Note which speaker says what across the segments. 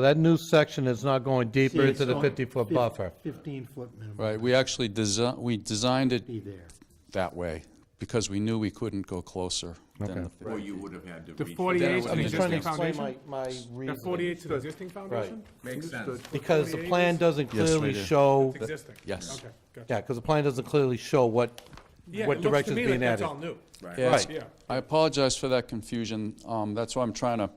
Speaker 1: That new section is not going deeper
Speaker 2: See,
Speaker 1: into the
Speaker 2: so-
Speaker 1: 50-foot
Speaker 2: fif-
Speaker 1: buffer.
Speaker 2: 15-foot minimum,
Speaker 3: Right, we actually desi we designed it
Speaker 2: be there.
Speaker 3: that way because we knew we couldn't go closer than the
Speaker 4: Or you would have had to.
Speaker 5: The
Speaker 4: reach-
Speaker 5: 48 to
Speaker 1: I'm
Speaker 5: the
Speaker 1: just trying to
Speaker 5: existing
Speaker 1: explain
Speaker 5: foundation?
Speaker 1: my, my
Speaker 5: The
Speaker 1: reason.
Speaker 5: 48 to the existing foundation?
Speaker 4: Makes sense.
Speaker 1: Because the
Speaker 5: 48
Speaker 1: plan
Speaker 5: is-
Speaker 1: doesn't
Speaker 3: Yes,
Speaker 1: clearly
Speaker 3: right here.
Speaker 1: show,
Speaker 5: It's Existing?
Speaker 3: Yes.
Speaker 5: Okay, gotcha.
Speaker 1: yeah, because the plan doesn't clearly show what,
Speaker 5: Yeah,
Speaker 1: what
Speaker 5: it looks to
Speaker 1: direction's
Speaker 5: me
Speaker 1: being
Speaker 5: like that's
Speaker 1: added.
Speaker 5: all new.
Speaker 3: Yeah,
Speaker 1: Right.
Speaker 5: Yeah.
Speaker 3: I apologize for that confusion. Um, That's why I'm trying to,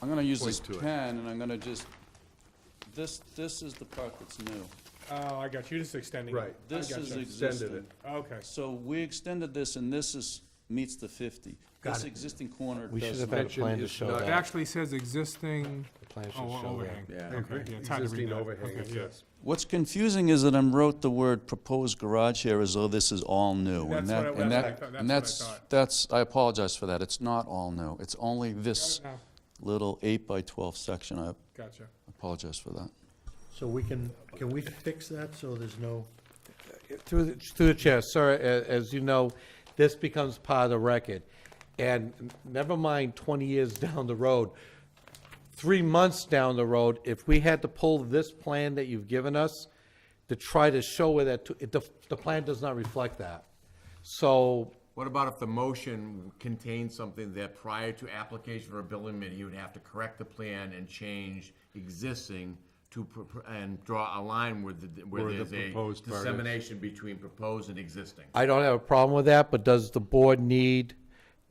Speaker 3: I'm going to use this pen, and I'm going to just, this, this is the part that's new.
Speaker 5: Oh, I got you, just extending. it.
Speaker 6: Right. I
Speaker 3: This
Speaker 6: gotcha.
Speaker 3: is
Speaker 6: Extended
Speaker 3: existing.
Speaker 6: it.
Speaker 5: Okay,
Speaker 3: So we extended this, and this is, meets the 50. This existing corner
Speaker 1: we should
Speaker 3: does
Speaker 1: have had a
Speaker 3: not.
Speaker 1: plan to
Speaker 6: is
Speaker 1: show
Speaker 6: not-
Speaker 5: it
Speaker 1: that.
Speaker 5: actually says existing
Speaker 1: The plan should
Speaker 5: oh,
Speaker 1: show that.
Speaker 5: overhang.
Speaker 4: Yeah. I
Speaker 5: Okay, yeah, it's hard to read
Speaker 6: Existing
Speaker 5: that.
Speaker 6: overhang,
Speaker 5: Okay,
Speaker 6: it
Speaker 5: yeah.
Speaker 6: says.
Speaker 3: What's confusing is that I wrote the word proposed garage here as though this is all new. and
Speaker 5: That's
Speaker 3: that-
Speaker 5: what I-
Speaker 3: and
Speaker 5: that's
Speaker 3: that-
Speaker 5: what I thought-
Speaker 3: And
Speaker 5: that's
Speaker 3: that's,
Speaker 5: what I
Speaker 3: that's, I apologize for that. It's not all new. It's only this
Speaker 5: No,
Speaker 3: little eight by 12 section. I
Speaker 5: Oh, Gotcha.
Speaker 3: apologize for that.
Speaker 2: So we can, can we fix that so there's no,
Speaker 1: Through, the- through the chair, sir, a- as you know, this becomes part of the record. And never mind 20 years down the road, three months down the road, if we had to pull this plan that you've given us to try to show where that, to- it- the, the plan does not reflect that. So
Speaker 4: What about if the motion contains something that prior to application for a building permit, you would have to correct the plan and change existing to, pr- pr- and draw a line where the, where
Speaker 6: Where the
Speaker 4: there's a
Speaker 6: proposed part is.
Speaker 4: dissemination between proposed and existing?
Speaker 1: I don't have a problem with that, but does the board need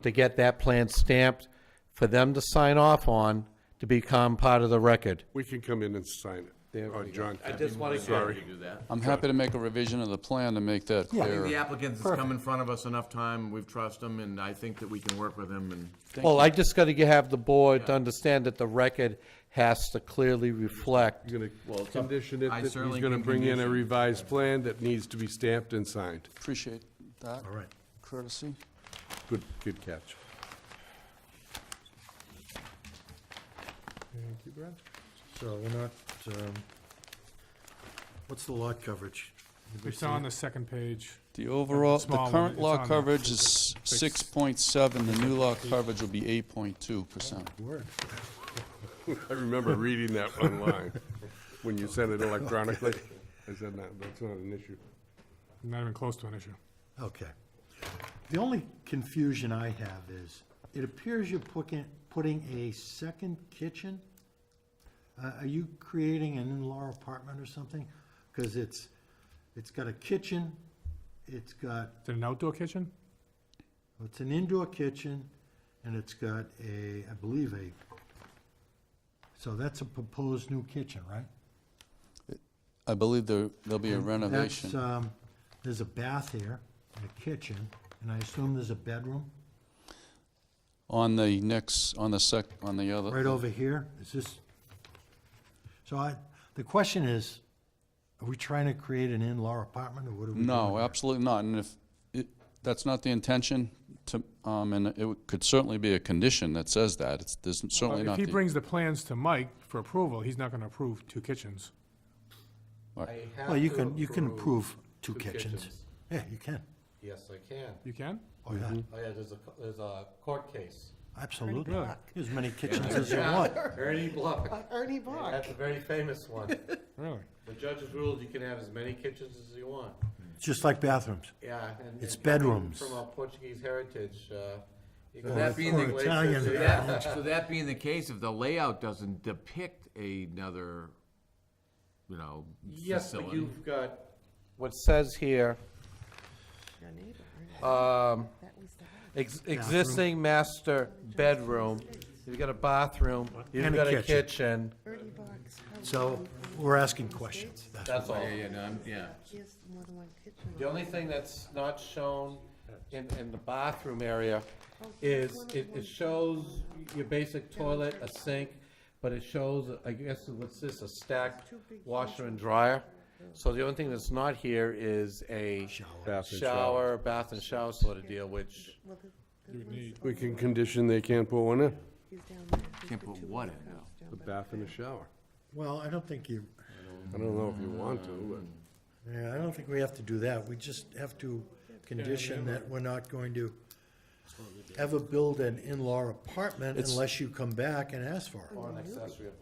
Speaker 1: to get that plan stamped for them to sign off on to become part of the record?
Speaker 6: We can come in and sign it, or John
Speaker 1: I
Speaker 6: can.
Speaker 1: just want to
Speaker 4: Sorry to do that.
Speaker 3: I'm happy to make a revision of the plan to make that
Speaker 4: I think the
Speaker 3: clear.
Speaker 4: applicant has come in front of us enough time, we've trusted him, and I think that we can work with him and.
Speaker 1: Well, I just got to have the board to understand that the record has to clearly reflect.
Speaker 6: You're
Speaker 4: Well,
Speaker 6: gonna
Speaker 4: it's up-
Speaker 6: condition it,
Speaker 4: I
Speaker 6: that he's
Speaker 4: certainly
Speaker 6: gonna
Speaker 4: can
Speaker 6: bring in a
Speaker 4: condition.
Speaker 6: revised plan that needs to be stamped and signed.
Speaker 3: Appreciate that
Speaker 6: All right.
Speaker 3: courtesy.
Speaker 6: Good, good catch.
Speaker 5: Thank you, Brad.
Speaker 2: so we're not, um, what's the lot coverage?
Speaker 5: It's on the second page.
Speaker 3: The overall,
Speaker 5: Small
Speaker 3: the
Speaker 5: one,
Speaker 3: current
Speaker 5: it's
Speaker 3: law
Speaker 5: on there.
Speaker 3: coverage is 6.7, the new law coverage will be 8.2%.
Speaker 2: Word.
Speaker 6: I remember reading that online, when you sent it electronically. I said, no, that's not an issue.
Speaker 5: Not even close to an issue.
Speaker 2: Okay. The only confusion I have is, it appears you're putting, putting a second kitchen? Uh, Are you creating an in-law apartment or something? Because it's, it's got a kitchen, it's got,
Speaker 5: Is it an outdoor kitchen?
Speaker 2: it's an indoor kitchen, and it's got a, I believe a, so that's a proposed new kitchen, right?
Speaker 3: I believe there, there'll be a
Speaker 2: That's,
Speaker 3: renovation.
Speaker 2: um, there's a bath here, and a kitchen, and I assume there's a bedroom
Speaker 3: On the next, on the sec, on the other.
Speaker 2: right over here. Is this? So I, the question is, are we trying to create an in-law apartment, or what are we doing?
Speaker 3: No,
Speaker 2: here?
Speaker 3: absolutely not, and if, it- that's not the intention to, um, and it would- could certainly be a condition that says that, it's, there's certainly
Speaker 5: If
Speaker 3: not
Speaker 5: he
Speaker 3: the,
Speaker 5: brings the plans to Mike for approval, he's not gonna approve two kitchens.
Speaker 2: Well, you can, you can approve two kitchens. Yeah, you can,
Speaker 1: Yes, I can.
Speaker 5: You can?
Speaker 2: oh, yeah,
Speaker 3: Mm-hmm.
Speaker 1: Oh, yeah, there's a, there's a court case.
Speaker 2: absolutely.
Speaker 5: Really?
Speaker 2: As many kitchens as you want.
Speaker 1: Ernie Block. Ernie Block. That's a very famous one.
Speaker 5: Really?
Speaker 1: The judge's ruled you can have as many kitchens as you want.
Speaker 2: Just like bathrooms.
Speaker 1: Yeah. and-
Speaker 2: It's
Speaker 1: and coming
Speaker 2: bedrooms.
Speaker 1: From our Portuguese heritage, uh, you can
Speaker 2: Or-
Speaker 1: have
Speaker 4: that being the-
Speaker 1: places-
Speaker 2: Italian.
Speaker 1: yeah.
Speaker 4: Yeah, so that being the case, if the layout doesn't depict another, you know,
Speaker 1: Yes, but
Speaker 4: facility.
Speaker 1: you've got, what says here,
Speaker 7: Your neighbor, right?
Speaker 1: um,
Speaker 7: That was the house.
Speaker 1: ex- existing master bedroom, you've got a bathroom, you've
Speaker 2: And a
Speaker 1: got a
Speaker 2: kitchen.
Speaker 1: kitchen.
Speaker 7: Ernie Box. house
Speaker 2: So
Speaker 7: on-
Speaker 2: we're asking questions. That's-
Speaker 1: That's all.
Speaker 4: Yeah, yeah, no, I'm- yeah.
Speaker 7: He has more than one kitchen.
Speaker 1: The only thing that's not shown in, in the bathroom area is, it, it shows your basic toilet, a sink, but it shows, I guess, what's this, a stacked washer and dryer? So the only thing that's not here is a
Speaker 6: Bath and shower.
Speaker 1: shower, bath and shower sort of deal, which,
Speaker 7: Well, the- there's one
Speaker 6: We can condition they can't put one in,
Speaker 7: he's down there. There's
Speaker 4: Can't
Speaker 7: the
Speaker 4: put
Speaker 7: two
Speaker 4: what
Speaker 7: big
Speaker 4: in,
Speaker 7: house down
Speaker 6: the
Speaker 7: by-
Speaker 6: bath and the shower.
Speaker 2: Well, I don't think you,
Speaker 6: I don't know if you want to,
Speaker 2: Yeah, I don't think we have to do that. We just have to condition that we're not going to ever build an in-law apartment unless you come back and ask for it.
Speaker 1: or an accessory apartment.